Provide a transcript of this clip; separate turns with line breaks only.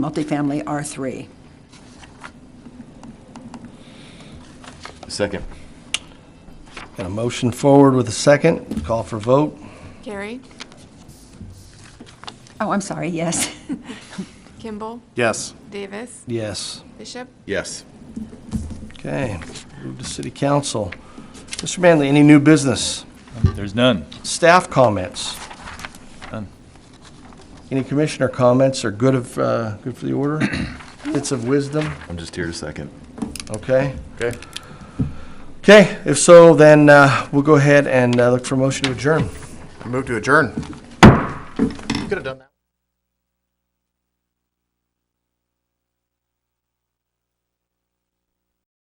multifamily R3.
Second.
Got a motion forward with a second. Call for vote.
Carrie,
Oh, I'm sorry, yes.
Kimball,
Yes.
Davis,
Yes.
Bishop,
Yes.
Okay. Move to city council. Mr. Manley, any new business?
There's none.
Staff comments?
None.
Any commissioner comments are good of, uh, good for the order? Bits of wisdom?
I'm just here to second.
Okay.
Okay.
Okay, if so, then uh, we'll go ahead and uh, look for a motion to adjourn.
I move to adjourn. Could have done that.